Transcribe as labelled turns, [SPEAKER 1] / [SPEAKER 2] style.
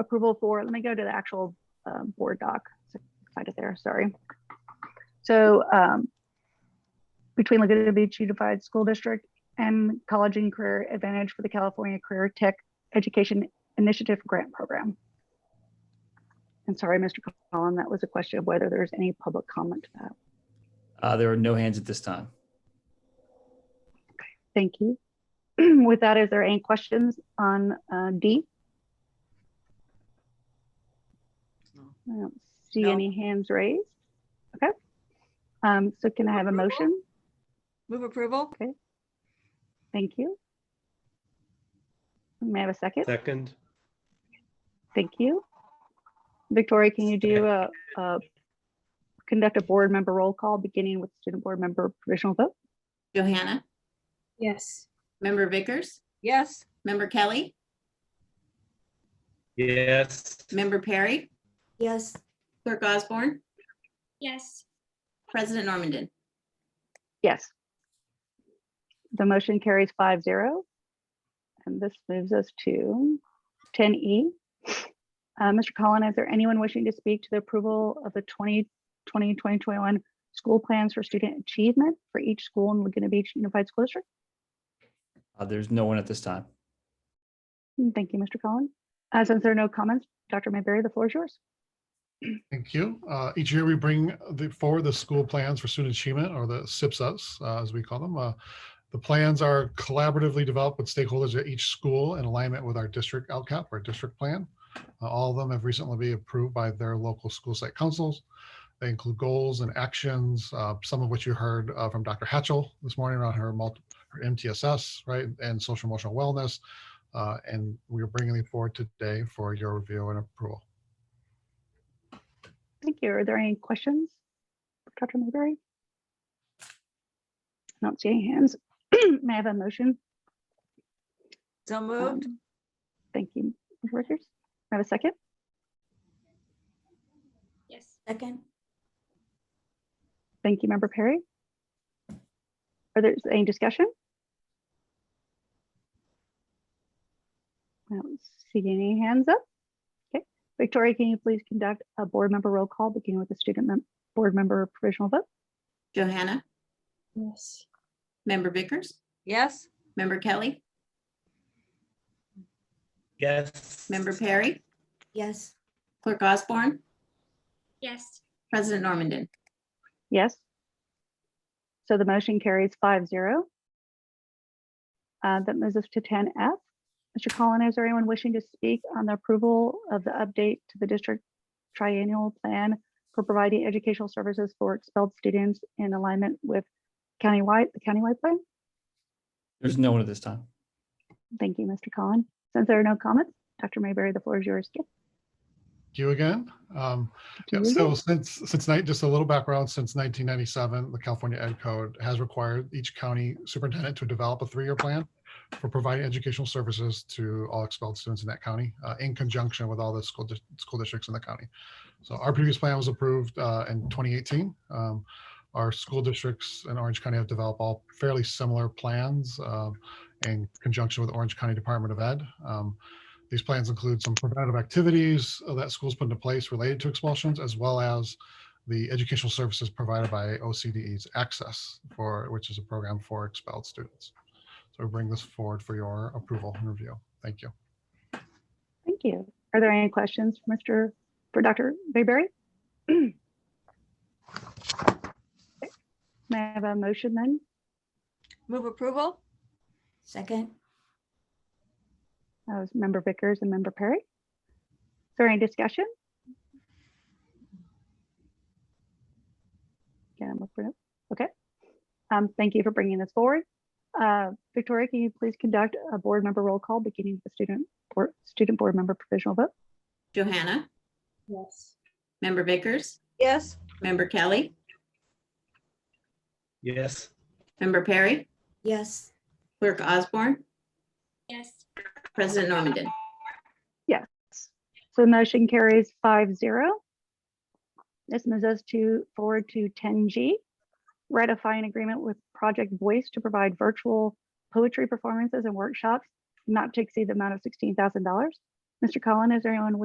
[SPEAKER 1] approval for, let me go to the actual uh, board doc. Find it there, sorry. So um, between Laguna Beach Unified School District and College and Career Advantage for the California Career Tech Education Initiative Grant Program. And sorry, Mr. Collin, that was a question of whether there's any public comment to that.
[SPEAKER 2] Uh, there are no hands at this time.
[SPEAKER 1] Thank you. With that, is there any questions on uh, D? I don't see
[SPEAKER 3] No.
[SPEAKER 1] any hands raised. Okay. Um, so can I have a
[SPEAKER 3] Approval?
[SPEAKER 1] motion?
[SPEAKER 3] Move approval?
[SPEAKER 1] Thank you. May I have a second?
[SPEAKER 4] Second,
[SPEAKER 1] Thank you. Victoria, can you do a, a, conduct a board member roll call, beginning with student board member provisional vote?
[SPEAKER 5] Johanna,
[SPEAKER 6] Yes.
[SPEAKER 5] member Vickers,
[SPEAKER 3] Yes.
[SPEAKER 5] member Kelly,
[SPEAKER 4] yes,
[SPEAKER 5] member Perry,
[SPEAKER 6] Yes.
[SPEAKER 5] clerk Osborne,
[SPEAKER 6] Yes.
[SPEAKER 5] president Normandin.
[SPEAKER 1] Yes. The motion carries five zero. And this moves us to ten E. Mr. Collin, is there anyone wishing to speak to the approval of the 2020-2021 school plans for student achievement for each school in Laguna Beach Unified School District?
[SPEAKER 2] Uh, there's no one at this time.
[SPEAKER 1] Mm, Thank you, Mr. Collin. Uh, Since there are no comments, Dr. Mayberry, the floor is yours.
[SPEAKER 7] Thank you. Uh, Each year we bring the, forward the school plans for student achievement or the SIPSS, uh, as we call them. Uh, The plans are collaboratively developed with stakeholders at each school in alignment with our district LCAP or district plan. Uh, All of them have recently been approved by their local school site councils. They include goals and actions, uh, some of which you heard uh, from Dr. Hatchell this morning around her multi, her MTSS, right, and social emotional wellness. Uh, And we are bringing them forward today for your review and approval.
[SPEAKER 1] Thank you. Are there any questions? for Dr. Mayberry? I don't see any hands. May I have a motion?
[SPEAKER 3] So moved?
[SPEAKER 1] Um, Thank you, Ms. Richards. I have a second.
[SPEAKER 6] Yes. Second?
[SPEAKER 1] Thank you, Member Perry. Are there any discussion? I don't see any hands up. Okay, Victoria, can you please conduct a board member roll call, beginning with the student mem- board member provisional vote?
[SPEAKER 5] Johanna,
[SPEAKER 6] Yes.
[SPEAKER 5] member Vickers,
[SPEAKER 3] Yes.
[SPEAKER 5] member Kelly,
[SPEAKER 4] yes.
[SPEAKER 5] member Perry,
[SPEAKER 6] Yes.
[SPEAKER 5] clerk Osborne,
[SPEAKER 6] Yes.
[SPEAKER 5] president Normandin.
[SPEAKER 1] Yes. So the motion carries five zero. Uh, That moves us to ten F. Mr. Collin, is there anyone wishing to speak on the approval of the update to the district triennial plan for providing educational services for expelled students in alignment with countywide, the countywide plan?
[SPEAKER 2] There's no one at this time.
[SPEAKER 1] Thank you, Mr. Collin. Since there are no comments, Dr. Mayberry, the floor is yours. Yep,
[SPEAKER 7] Thank you again. Um,
[SPEAKER 1] to
[SPEAKER 7] yeah,
[SPEAKER 1] you
[SPEAKER 7] so since since night, just a little background, since 1997, the California Ed Code has required each county superintendent to develop a three-year plan for providing educational services to all expelled students in that county, uh, in conjunction with all the school dis- school districts in the county. So our previous plan was approved uh, in 2018. Um, our school districts in Orange County have developed all fairly similar plans um, in conjunction with Orange County Department of Ed. Um, these plans include some preventative activities uh, that schools put into place related to expulsions, as well as the educational services provided by OCDE's Access, for which is a program for expelled students. So we bring this forward for your approval and review. Thank you.
[SPEAKER 1] Thank you. Are there any questions for Mr., for Dr. Mayberry? May I have a motion then?
[SPEAKER 3] Move approval?
[SPEAKER 6] Second?
[SPEAKER 1] That was member Vickers and member Perry. Is there any discussion? Yeah, I'm looking up. Okay. Um, thank you for bringing this forward. Uh, Victoria, can you please conduct a board member roll call beginning with the student, board student board member provisional vote?
[SPEAKER 5] Johanna,
[SPEAKER 6] Yes.
[SPEAKER 5] member Vickers,
[SPEAKER 3] Yes.
[SPEAKER 5] member Kelly,
[SPEAKER 4] Yes,
[SPEAKER 5] member Perry,
[SPEAKER 6] Yes.
[SPEAKER 5] clerk Osborne,
[SPEAKER 6] Yes.
[SPEAKER 5] president Normandin.
[SPEAKER 1] So the motion carries five zero. This moves us to forward to ten G. Ratify an agreement with Project Voice to provide virtual poetry performances and workshops not to exceed the amount of sixteen thousand dollars. Mr. Collin, is there anyone wishing